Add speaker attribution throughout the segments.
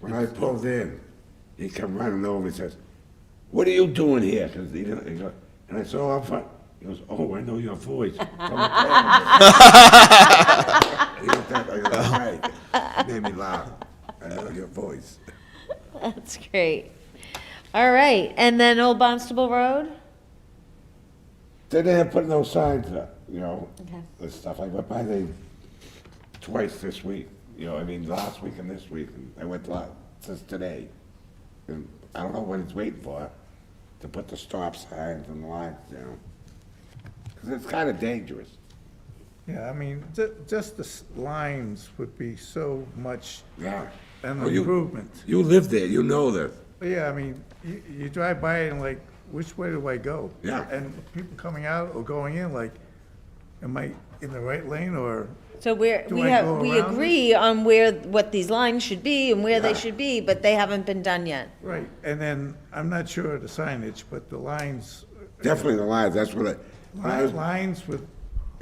Speaker 1: When I pulled in, he come running over and says, what are you doing here? 'Cause he didn't, he go, and I saw up front, he goes, oh, I know your voice. from the car." He looked up, I go, "Right." Made me laugh. I know your voice.
Speaker 2: That's great. All right, and then Old Bonstable Road?
Speaker 1: They didn't put no signs up, you know,
Speaker 2: Okay.
Speaker 1: and stuff. I went by there twice this week, you know, I mean, last week and this week, and I went last, since today. And I don't know what it's waiting for, to put the stop signs and lines down. Because it's kind of dangerous.
Speaker 3: Yeah, I mean, ju- just the s- lines would be so much
Speaker 1: Yeah.
Speaker 3: an
Speaker 1: Oh, you-
Speaker 3: improvement.
Speaker 1: You live there, you know this.
Speaker 3: But Yeah, I mean, you, you drive by and like, which way do I go?
Speaker 1: Yeah.
Speaker 3: And people coming out or going in, like, am I in the right lane or,
Speaker 2: So we're,
Speaker 3: Do
Speaker 2: we
Speaker 3: I
Speaker 2: have,
Speaker 3: go
Speaker 2: we
Speaker 3: around it?
Speaker 2: agree on where, what these lines should be and where they
Speaker 1: Yeah.
Speaker 2: should be, but they haven't been done yet.
Speaker 3: right? And then, I'm not sure of the signage, but the lines,
Speaker 1: Definitely the lines, that's what
Speaker 3: li-
Speaker 1: I,
Speaker 3: lines with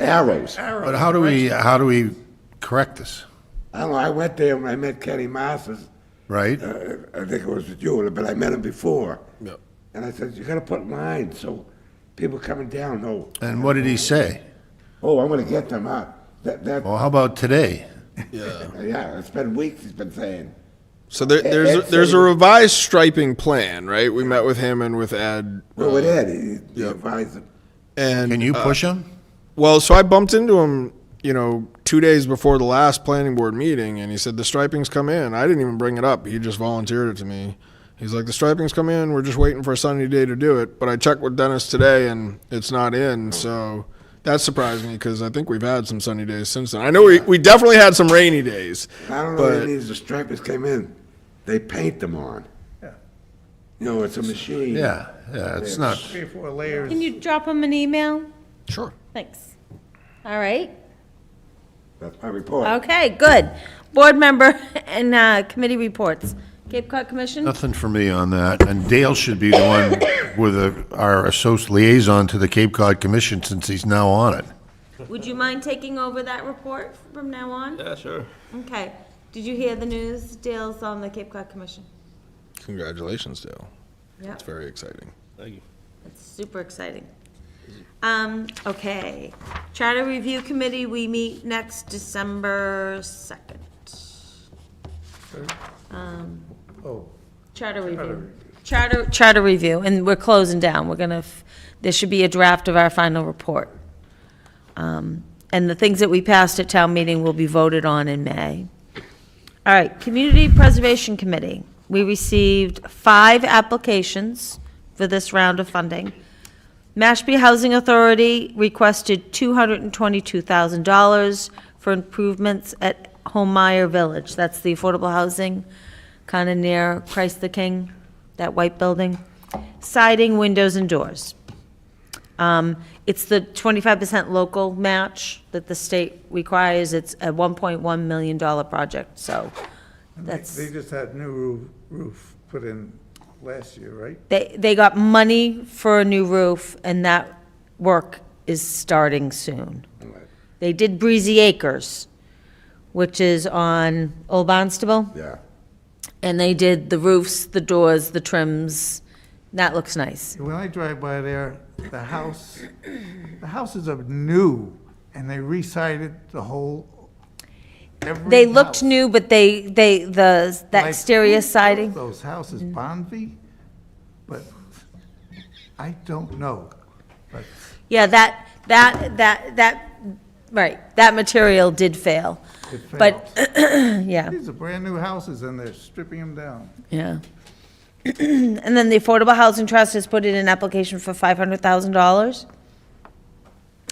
Speaker 1: arrows. I
Speaker 3: arrows.
Speaker 4: But how do we, how do we correct this,
Speaker 1: don't know, I went there, and I met Kenny Masters,
Speaker 4: right?
Speaker 1: uh, I think it was with you, but I met him before.
Speaker 4: Yep.
Speaker 1: And I said, you gotta put lines, so people coming down know,
Speaker 4: And what did he say?
Speaker 1: oh, I'm gonna get them out. That, that,
Speaker 4: Well, how about today?
Speaker 1: yeah, it's been weeks he's been saying.
Speaker 5: So there,
Speaker 1: Ed
Speaker 5: there's
Speaker 1: said
Speaker 5: there's
Speaker 1: he
Speaker 5: a
Speaker 1: was-
Speaker 5: revised striping plan, right? We met with him and with Ed,
Speaker 1: Well, with Ed, he- he
Speaker 5: Yep.
Speaker 1: advised him.
Speaker 5: and
Speaker 4: Can you
Speaker 5: uh,
Speaker 4: push him?
Speaker 5: well, so I bumped into him, you know, two days before the last planning board meeting, and he said the striping's come in. I didn't even bring it up; he just volunteered it to me. He's like, the striping's come in. We're just waiting for a sunny day to do it. But I checked with Dennis today, and it's not in. So that surprised me because I think we've had some sunny days since then. I know we, we definitely had some rainy days.
Speaker 1: I don't know what it
Speaker 5: But-
Speaker 1: means, the stripers came in, they paint them on.
Speaker 3: Yeah.
Speaker 1: You know, it's a machine.
Speaker 4: Yeah, yeah, it's not,
Speaker 3: Three or four layers.
Speaker 2: Can you drop them an email?
Speaker 5: Sure.
Speaker 2: Thanks. All right,
Speaker 1: That's my report.
Speaker 2: okay, good. Board member and uh, committee reports. Cape Cod Commission?
Speaker 4: nothing for me on that. And Dale should be the one with a- our associate liaison to the Cape Cod Commission since he's now on it.
Speaker 2: Would you mind taking over that report from now on?
Speaker 6: Yeah, sure.
Speaker 2: Okay. Did you hear the news? Dale's on the Cape Cod Commission.
Speaker 5: Congratulations, Dale.
Speaker 2: Yeah,
Speaker 5: It's very exciting.
Speaker 6: Thank you.
Speaker 2: that's super exciting. Um, okay. Charter Review Committee, we meet next December second. Um,
Speaker 3: Oh,
Speaker 2: Charter Review. Charter, Charter Review, and we're closing down. We're gonna, f- there should be a draft of our final report. Um, and the things that we passed at town meeting will be voted on in May. All right, Community Preservation Committee. We received five applications for this round of funding. Mashpee Housing Authority requested $222,000 for improvements at Homemeyer Village. That's the affordable housing, kind of near Christ the King, that white building. Siding, windows, and doors. Um, It's the 25% local match that the state requires. It's a $1.1 million project, so
Speaker 3: they
Speaker 2: that's.
Speaker 3: they just had new roof, roof put in last year, right?
Speaker 2: They, they got money for a new roof, and that work is starting soon. They did Breezy Acres, which is on Old Barnstable,
Speaker 1: Yeah.
Speaker 2: and they did the roofs, the doors, the trims. That looks nice.
Speaker 3: When I drive by there, the house, the houses are new, and they recited the whole, every
Speaker 2: They looked
Speaker 3: house.
Speaker 2: new, but they, they, the, the
Speaker 3: Like,
Speaker 2: exterior
Speaker 3: who built
Speaker 2: siding, Mm.
Speaker 3: Those houses, Bonvi, but I don't know. But
Speaker 2: yeah, that, that, that, that, right, that material did fail.
Speaker 3: it
Speaker 2: But-
Speaker 3: fails.
Speaker 2: Yeah,
Speaker 3: These are brand-new houses, and they're stripping them down.
Speaker 2: yeah. And then the Affordable Housing Trust has put in an application for five hundred thousand dollars.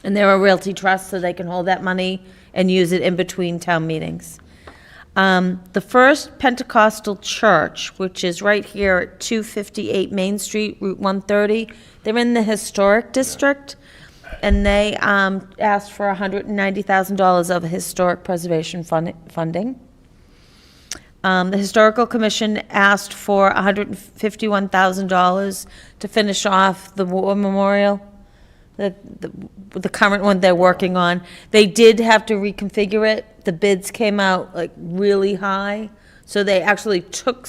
Speaker 2: And they're a realty trust, so they can hold that money and use it in between town meetings. Um, the First Pentecostal Church, which is right here at two fifty-eight Main Street, Route one thirty, they're in the historic district. And they, um, asked for hundred and ninety thousand dollars of historic preservation fund, funding. Um, the Historical Commission asked for $151,000 to finish off the war memorial, the, the, the current one they're working on. They did have to reconfigure it. The bids came out like really high, So they actually took